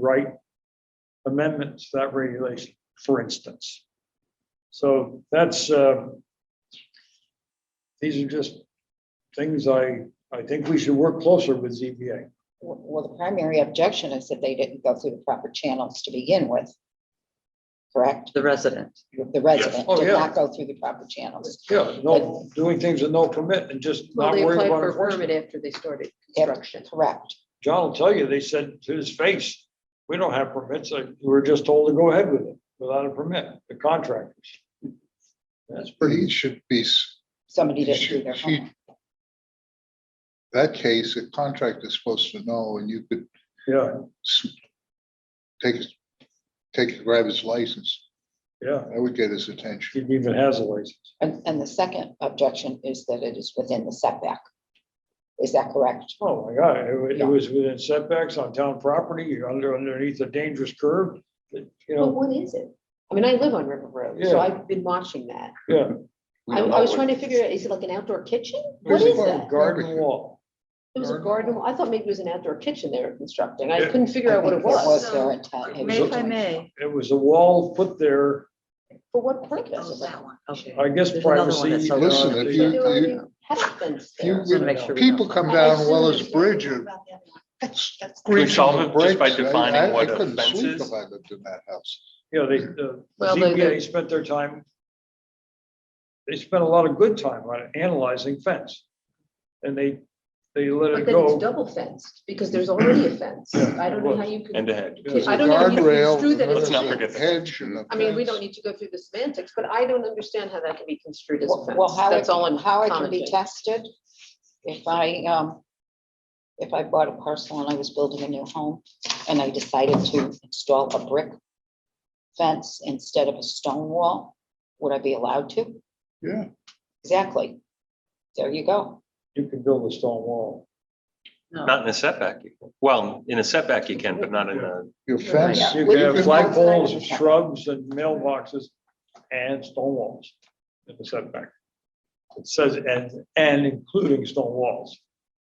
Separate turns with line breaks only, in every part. write amendments to that regulation, for instance. So that's, uh, these are just things I, I think we should work closer with ZBA.
Well, the primary objection is that they didn't go through the proper channels to begin with. Correct?
the resident.
The resident
Oh,
did
yeah.
not go through the proper channels.
Yeah, no, doing things with no permit and just
Well,
not
they
worried
applied
about
for a permit
enforcement.
after they started
Yep.
construction.
Correct.
John will tell you, they said to his face, we don't have permits, like, we were just told to go ahead with it without a permit, the contractors. That's
But
pretty,
he should be, s-
Somebody
he
didn't do
should,
their
he.
homework.
That case, a contractor's supposed to know and you could
yeah,
s- take, his- take, grab his license.
yeah,
That would get his attention.
he even has a license.
And, and the second objection is that it is within the setback. Is that correct?
Oh, my God, it wa- it
Yeah.
was within setbacks on town property, you're under, underneath a dangerous curve, you
But
know,
what is it? I mean, I live on River Road,
Yeah.
so I've been watching that.
yeah.
I, I was trying to figure out, is it like an outdoor kitchen? What
There's
is
a
that?
Garden wall.
It was a
garden.
garden. I thought maybe it was an outdoor kitchen they were constructing. I
Yeah.
couldn't figure out what
I
it
think that
was.
Was their intent. It was
May if I
intentional.
may.
It was a wall put there,
For what
Oh,
purpose?
that one, okay.
I guess
There's another one
privacy. uh,
that's over
Listen,
on the-
if
They
you-
do a big Had a fence
You
there.
So to make sure we
People
know.
come
I
down
assume
Weller's
it's gotta be
Bridge and.
about that one.
Can
we solve it just by defining what a fence is?
If I lived in that house.
Yeah, they, the
Well, they-
ZBA spent their time. They spent a lot of good time on analyzing fence. And they, they let
But
it
then it's
go.
double fenced because there's already a fence.
Yeah,
I don't know
well,
how you could.
And a hedge.
Yeah.
I don't know if you can
Guardrail,
construe that as
Let's
a
not
there's a
forget the
Hedge and a
I mean, we don't
fence.
need to go through the semantics, but I don't understand how that can be construed as a
Well,
fence.
well, how, it-
That's all I'm
Um, how it can be
commenting.
tested, if I, um, if I bought a parcel and I was building a new home and I decided to install a brick fence instead of a stone wall, would I be allowed to?
Yeah,
Exactly. There you go.
You can build a stone wall.
Not in a setback. Well, in a setback you can, but not in a,
your fence.
Yeah.
You
Well,
can
you
have
can-
flagpoles and shrubs and mailboxes and stone walls in the setback. It says, and, and including stone walls.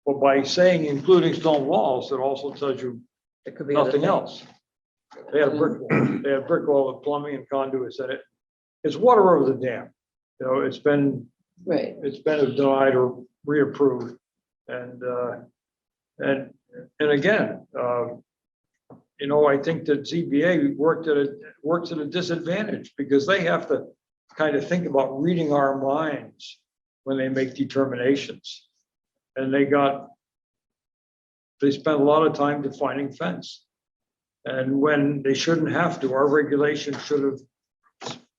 But by saying including stone walls, it also tells you
It could be other
nothing
things.
else. They had a brick, wall. they had brick wall with plumbing and conduits in it. It's water over the dam. You know, it's been,
Right.
it's been denied or reapproved. And, uh, and, and again, uh, you know, I think that ZBA worked at a, works at a disadvantage because they have to kind of think about reading our minds when they make determinations. And they got, they spent a lot of time defining fence. And when they shouldn't have to, our regulation should have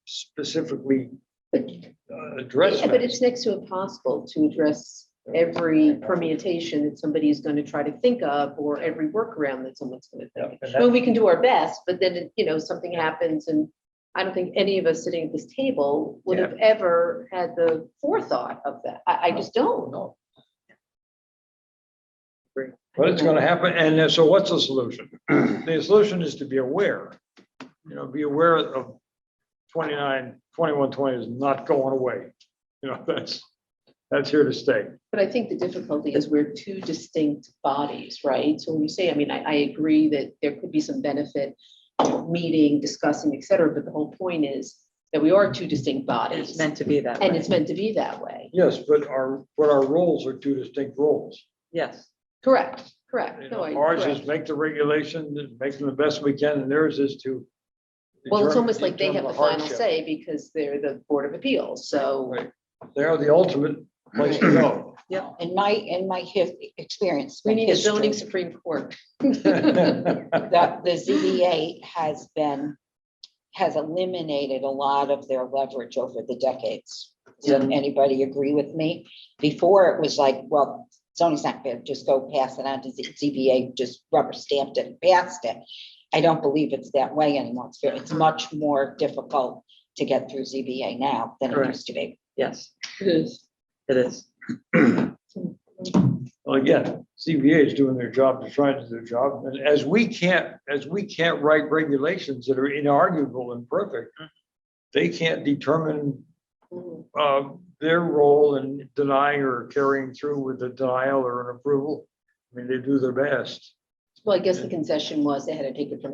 specifically
But
uh, addressed
Yeah, but
that.
it's next to impossible to address every permutation that somebody is going to try to think of or every workaround that someone's going to
Yeah,
think. of.
and
Well,
that-
we can do our best, but then, you know, something happens and I don't think any of us sitting at this table would have ever had the forethought of that. I, I just don't.
No. But it's gonna happen, and then, so what's the solution? The solution is to be aware, you know, be aware of 29, 2120 is not going away. You know, that's, that's here to stay.
But I think the difficulty is we're two distinct bodies, right? So when you say, I mean, I, I agree that there could be some benefit of meeting, discussing, et cetera, but the whole point is that we are two distinct
It's
bodies.
meant to be that
And
way,
it's meant to be that way.
Yes, but our, but our roles are two distinct roles.
yes.
Correct, correct.
You
No,
know,
I-
Ours is
correct.
make the regulations, and make them the best we can, and theirs is to.
Well, it's
determine-
almost like they have
determine
the final
hardship.
say because they're the Board of Appeals, so.
Right. They are the ultimate place to go.
In my, in my his, experience.
We
my
need a zoning
history,
Supreme Court.
The, the ZBA has been, has eliminated a lot of their leverage over the decades. Does anybody agree with me? Before, it was like, well, zoning's not fair, just go pass it on to Z- ZBA, just rubber stamped it, and passed it. I don't believe it's that way anymore. It's, very- it's much more difficult to get through ZBA now than it
Correct.
used to be.
Yes,
It is.
it is.
Well, again, CBA is doing their job, they're trying to do their job, and as we can't, as we can't write regulations that are inarguable and perfect, they can't determine
Mhm.
uh, their role in denying or carrying through with the denial or an approval. I mean, they do their best.
Well, I guess the concession was they had to take it from